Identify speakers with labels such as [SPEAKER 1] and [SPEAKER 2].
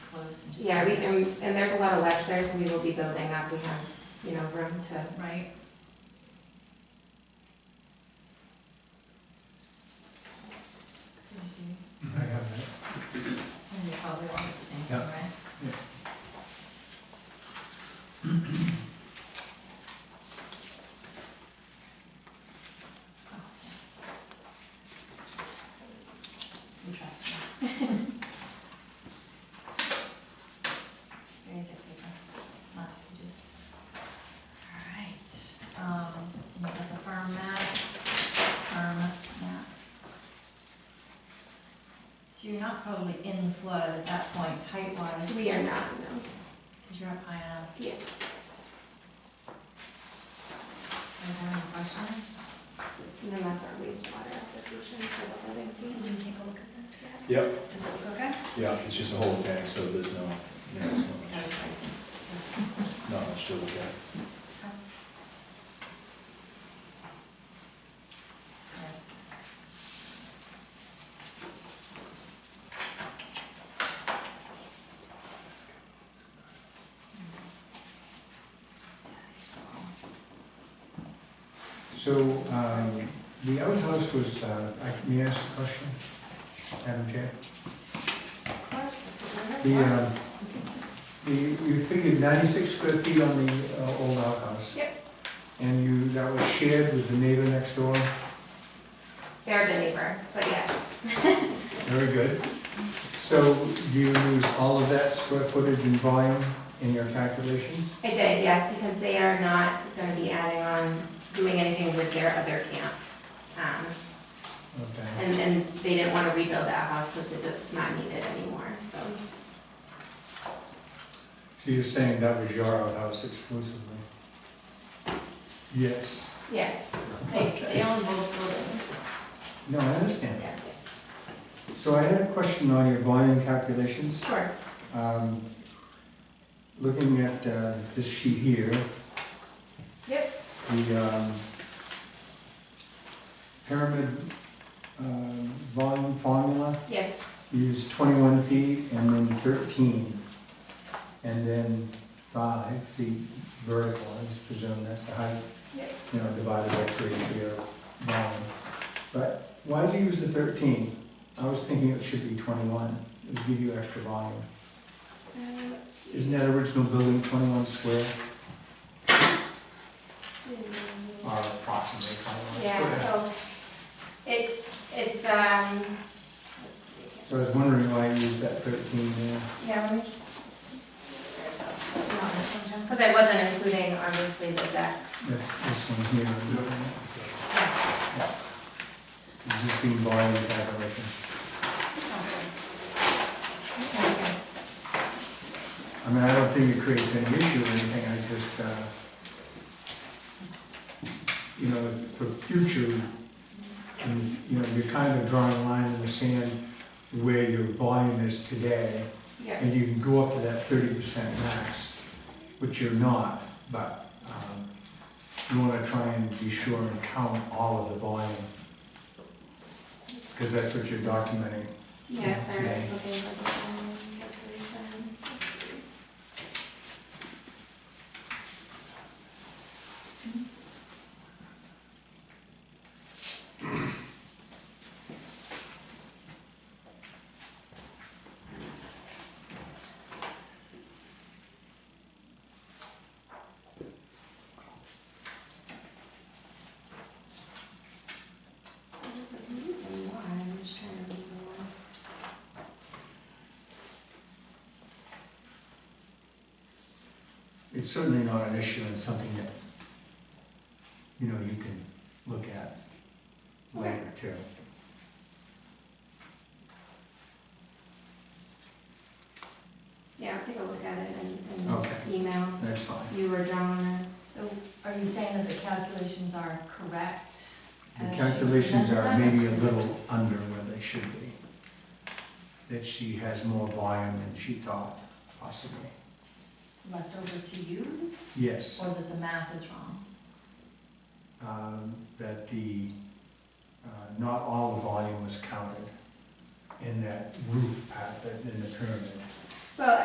[SPEAKER 1] close and just.
[SPEAKER 2] Yeah, we, and we, and there's a lot of ledge there, so we will be building up, we have, you know, room to,
[SPEAKER 1] Right? Did you see these?
[SPEAKER 3] I have that.
[SPEAKER 1] And they probably all look the same thing,
[SPEAKER 3] Yeah.
[SPEAKER 1] right? Oh. We trust you. It's very thick paper, it's not two pages. All right, um, we got the firm map, firm map. So you're not probably in the flood at that point, height wise,
[SPEAKER 2] we are not, no.
[SPEAKER 1] because you're up high enough.
[SPEAKER 2] Yeah.
[SPEAKER 1] Are there any questions?
[SPEAKER 2] And then that's our wastewater application for the building
[SPEAKER 1] Did
[SPEAKER 2] too.
[SPEAKER 1] you take a look at this yet?
[SPEAKER 4] Yep,
[SPEAKER 1] Does it look okay?
[SPEAKER 4] yeah, it's just a whole tank, so there's no, you know,
[SPEAKER 1] It's
[SPEAKER 4] there's
[SPEAKER 1] got his license too.
[SPEAKER 4] no, no, it's still okay.
[SPEAKER 3] So, um, the outhouse was, uh, I- may I ask a question, Madam Chair?
[SPEAKER 2] Of course, that's what
[SPEAKER 3] The,
[SPEAKER 2] we're here
[SPEAKER 3] um, the, you figured ninety-six square feet on the uh, old outhouse?
[SPEAKER 2] Yep.
[SPEAKER 3] And you, that was shared with the neighbor next door?
[SPEAKER 2] for. They're the neighbor, but yes,
[SPEAKER 3] Very good. So, do you use all of that square footage and volume in your calculations?
[SPEAKER 2] I did, yes, because they are not gonna be adding on, doing anything with their other camp. Um,
[SPEAKER 3] Okay.
[SPEAKER 2] and, and they didn't wanna rebuild that house, that it's not needed anymore, so.
[SPEAKER 3] So you're saying that was your outhouse exclusively? Yes.
[SPEAKER 2] Yes,
[SPEAKER 1] They, they own both buildings,
[SPEAKER 3] No, I understand.
[SPEAKER 1] yeah.
[SPEAKER 3] So I had a question on your volume calculations.
[SPEAKER 2] sure.
[SPEAKER 3] Um, Looking at uh, this sheet here,
[SPEAKER 2] Yep,
[SPEAKER 3] the um, pyramid um, volume formula,
[SPEAKER 2] yes,
[SPEAKER 3] you use 21 feet and then 13, and then 5 feet vertical, I just presume that's the height,
[SPEAKER 2] yep.
[SPEAKER 3] you know, divided by 3 for your volume. But why did you use the 13? I was thinking it should be 21, it would give you extra volume.
[SPEAKER 2] Uh, let's see.
[SPEAKER 3] Isn't that original building twenty-one square, or approximately
[SPEAKER 2] Yeah,
[SPEAKER 3] twenty-one square?
[SPEAKER 2] so it's, it's, um, let's see
[SPEAKER 3] So I was wondering why you used that thirteen there.
[SPEAKER 2] here. Yeah, let me just.
[SPEAKER 1] You want this one, Jen?
[SPEAKER 2] Because I wasn't including obviously the deck.
[SPEAKER 3] That's this one here. Yeah. Existing volume calculation.
[SPEAKER 1] Okay.
[SPEAKER 3] I mean, I don't think it creates any issue or anything, I just, uh, you know, for future, and, you know, you're kind of drawing a line in the sand where your volume is today.
[SPEAKER 2] Yeah,
[SPEAKER 3] And you can go up to that thirty percent max, which you're not, but, um, you wanna try and be sure and count all of the volume. Cause that's what you're documenting.
[SPEAKER 2] yeah, sorry, I was
[SPEAKER 3] Okay.
[SPEAKER 2] looking for the um, calculation. Let's see. I was like, "Hmm, then why?" I'm just trying to remember why.
[SPEAKER 3] It's certainly not an issue and something that, you know, you can look at later too.
[SPEAKER 2] Yeah, I'll take a look at it and,
[SPEAKER 3] Okay.
[SPEAKER 2] and email
[SPEAKER 3] That's fine.
[SPEAKER 2] you or John or.
[SPEAKER 1] So are you saying that the calculations are correct?
[SPEAKER 3] The
[SPEAKER 1] as
[SPEAKER 3] calculations are
[SPEAKER 1] presented?
[SPEAKER 3] maybe a little under where they should be. That she has more volume than she thought possibly.
[SPEAKER 1] Left over to use,
[SPEAKER 3] Yes.
[SPEAKER 1] or that the math is wrong?
[SPEAKER 3] um, that the, uh, not all the volume was counted in that roof pattern in the pyramid.
[SPEAKER 2] Well,